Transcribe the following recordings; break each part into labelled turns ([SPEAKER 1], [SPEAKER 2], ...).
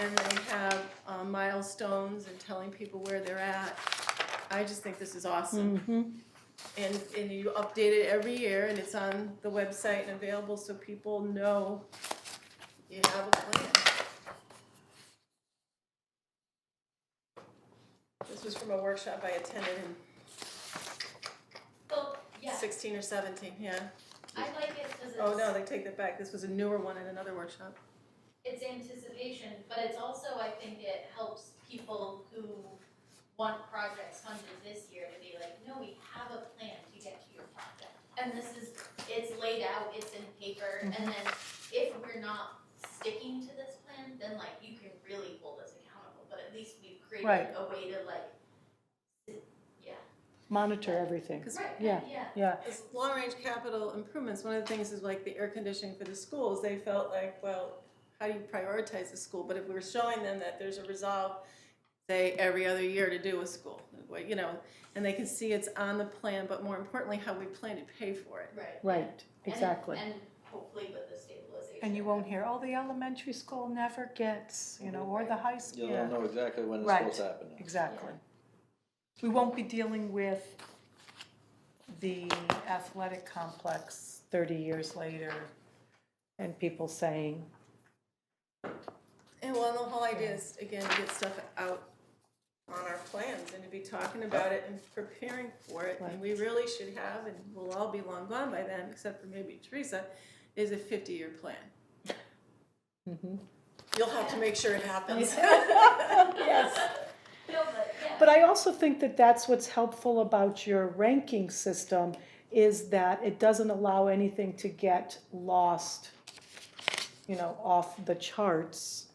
[SPEAKER 1] and they have um, milestones and telling people where they're at. I just think this is awesome. And, and you update it every year, and it's on the website and available, so people know you have a plan. This was from a workshop I attended
[SPEAKER 2] Oh,
[SPEAKER 1] in
[SPEAKER 2] yeah,
[SPEAKER 1] sixteen or seventeen, yeah.
[SPEAKER 2] I like it because it's.
[SPEAKER 1] Oh, no, they take that back, this was a newer one in another workshop.
[SPEAKER 2] it's anticipation, but it's also, I think it helps people who want projects funded this year to be like, no, we have a plan to get to your project. And this is, it's laid out, it's in paper, and then if we're not sticking to this plan, then like you can really hold us accountable, but at least we've created
[SPEAKER 3] Right.
[SPEAKER 2] a way to like,
[SPEAKER 3] Monitor everything.
[SPEAKER 1] Because
[SPEAKER 2] right,
[SPEAKER 3] Yeah.
[SPEAKER 2] yeah,
[SPEAKER 3] Yeah,
[SPEAKER 1] As long-range capital improvements, one of the things is like the air conditioning for the schools, they felt like, well, how do you prioritize the school? But if we were showing them that there's a resolve, say, every other year to do a school, like, you know, and they can see it's on the plan, but more importantly, how we plan to pay for it.
[SPEAKER 2] right.
[SPEAKER 3] right,
[SPEAKER 2] And-
[SPEAKER 3] exactly.
[SPEAKER 2] And hopefully with the stabilization.
[SPEAKER 4] And you won't hear, oh, the elementary school never gets, you know, or the high school.
[SPEAKER 5] You'll know exactly when it's
[SPEAKER 4] Right.
[SPEAKER 5] supposed to happen. now.
[SPEAKER 4] Exactly. We won't be dealing with the athletic complex thirty years later
[SPEAKER 3] And people saying,
[SPEAKER 1] And well, the whole idea is, again, to get stuff out on our plans and to be talking about it and preparing for it. And we really should have, and we'll all be long gone by then, except for maybe Teresa, is a fifty-year plan. You'll have to make sure it happens.
[SPEAKER 2] No, but yeah.
[SPEAKER 3] But I also think that that's what's helpful about your ranking system is that it doesn't allow anything to get lost, you know, off the charts.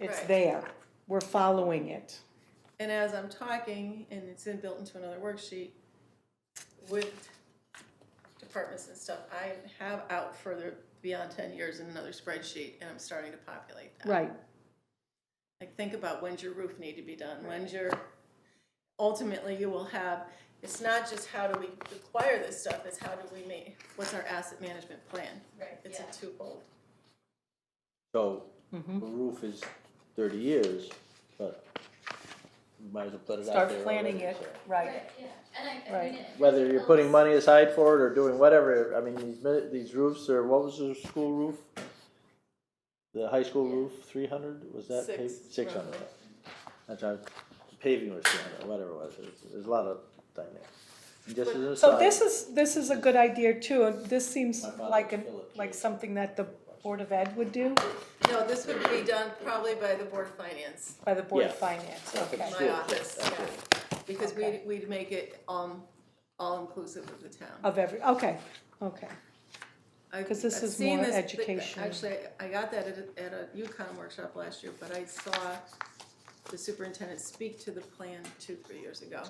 [SPEAKER 3] It's
[SPEAKER 1] Right.
[SPEAKER 3] there. We're following it.
[SPEAKER 1] And as I'm talking, and it's in, built into another worksheet, with departments and stuff, I have out further beyond ten years in another spreadsheet, and I'm starting to populate that.
[SPEAKER 3] Right.
[SPEAKER 1] Like, think about when's your roof need to be done, when's your, ultimately, you will have, it's not just how do we acquire this stuff, it's how do we make, what's our asset management plan?
[SPEAKER 2] Right,
[SPEAKER 1] It's a
[SPEAKER 2] yeah.
[SPEAKER 1] twofold.
[SPEAKER 5] So, the roof is thirty years, but you might as well put it out there.
[SPEAKER 4] start planning it,
[SPEAKER 5] already, so.
[SPEAKER 4] right.
[SPEAKER 2] Right, yeah, and I, I
[SPEAKER 4] Right.
[SPEAKER 2] mean it.
[SPEAKER 5] Whether you're
[SPEAKER 2] helps.
[SPEAKER 5] putting money aside for it or doing whatever, I mean, these, mi- these roofs are, what was the school roof? The high school roof, three hundred, was that
[SPEAKER 1] Six,
[SPEAKER 5] paved? Six hundred.
[SPEAKER 1] roughly.
[SPEAKER 5] That's right, paving was three hundred, whatever it was, there's, there's a lot of thing there. And Just as an aside.
[SPEAKER 3] So this is, this is a good idea too. and This seems
[SPEAKER 5] My father
[SPEAKER 3] like, an
[SPEAKER 5] would fill it.
[SPEAKER 3] like something that the Board of Ed would do
[SPEAKER 1] No, this would be done probably by the Board of Finance.
[SPEAKER 3] by the Board of
[SPEAKER 5] Yeah.
[SPEAKER 3] Finance,
[SPEAKER 5] Yeah,
[SPEAKER 3] okay.
[SPEAKER 5] it's-
[SPEAKER 1] my
[SPEAKER 5] Yeah,
[SPEAKER 1] office,
[SPEAKER 5] yeah,
[SPEAKER 1] yeah, because we'd, we'd make it, um, all-inclusive of the town.
[SPEAKER 3] Of every, okay, okay.
[SPEAKER 1] I've-
[SPEAKER 3] 'Cause this
[SPEAKER 1] I've
[SPEAKER 3] is
[SPEAKER 1] seen
[SPEAKER 3] more
[SPEAKER 1] this, but
[SPEAKER 3] education.
[SPEAKER 1] Actually, I got that at, a- at a UConn workshop last year, but I saw the superintendent speak to the plan two, three years ago.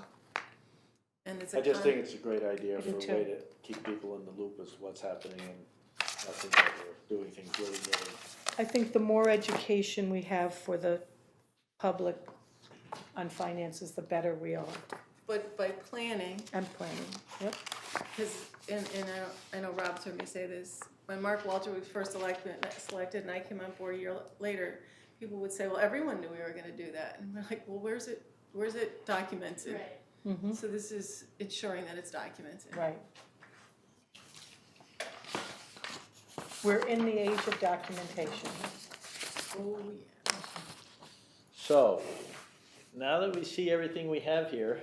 [SPEAKER 1] And it's a.
[SPEAKER 6] I just
[SPEAKER 1] con-
[SPEAKER 6] think it's a great idea
[SPEAKER 3] I
[SPEAKER 6] for
[SPEAKER 3] do
[SPEAKER 6] a
[SPEAKER 3] too.
[SPEAKER 6] way to keep people in the loop as to what's happening and nothing that we're doing things really, really.
[SPEAKER 3] I think the more education we have for the public on finances, the better we are.
[SPEAKER 1] But by planning,
[SPEAKER 3] I'm planning, yep.
[SPEAKER 1] Because, and, and I, don't- I know Rob's heard me say this, when Mark Walter was first elected, selected and I came on board a year later, people would say, well, everyone knew we were gonna do that. And we're like, well, where's it, where's it documented?
[SPEAKER 2] Right,
[SPEAKER 1] So this is ensuring that it's documented.
[SPEAKER 3] Right. We're in the age of documentation.
[SPEAKER 1] Oh, yeah.
[SPEAKER 5] So, now that we see everything we have here,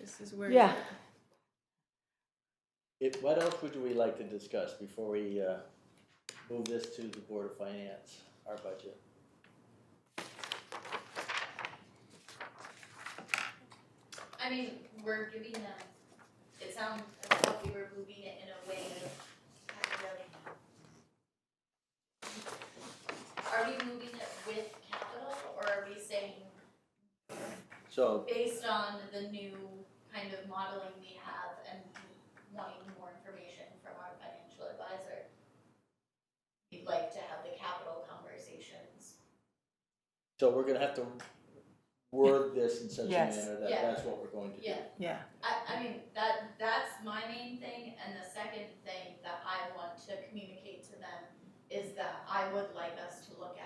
[SPEAKER 1] This is where.
[SPEAKER 3] Yeah.
[SPEAKER 5] If, what else would we like to discuss before we, uh, move this to the Board of Finance, our budget?
[SPEAKER 2] I mean, we're giving them, it sounds as though we were moving it in a way of kind of. Are we moving it with capital or are we saying
[SPEAKER 5] So,
[SPEAKER 2] based on the new kind of modeling we have and wanting more information from our financial advisor? We'd like to have the capital conversations.
[SPEAKER 5] so we're gonna have to word this in such a
[SPEAKER 4] Yes.
[SPEAKER 5] manner that
[SPEAKER 2] Yeah.
[SPEAKER 5] that's what we're going to do.
[SPEAKER 2] Yeah,
[SPEAKER 4] Yeah,
[SPEAKER 2] I, I mean, that, that's my main thing, and the second thing that I want to communicate to them is that I would like us to look at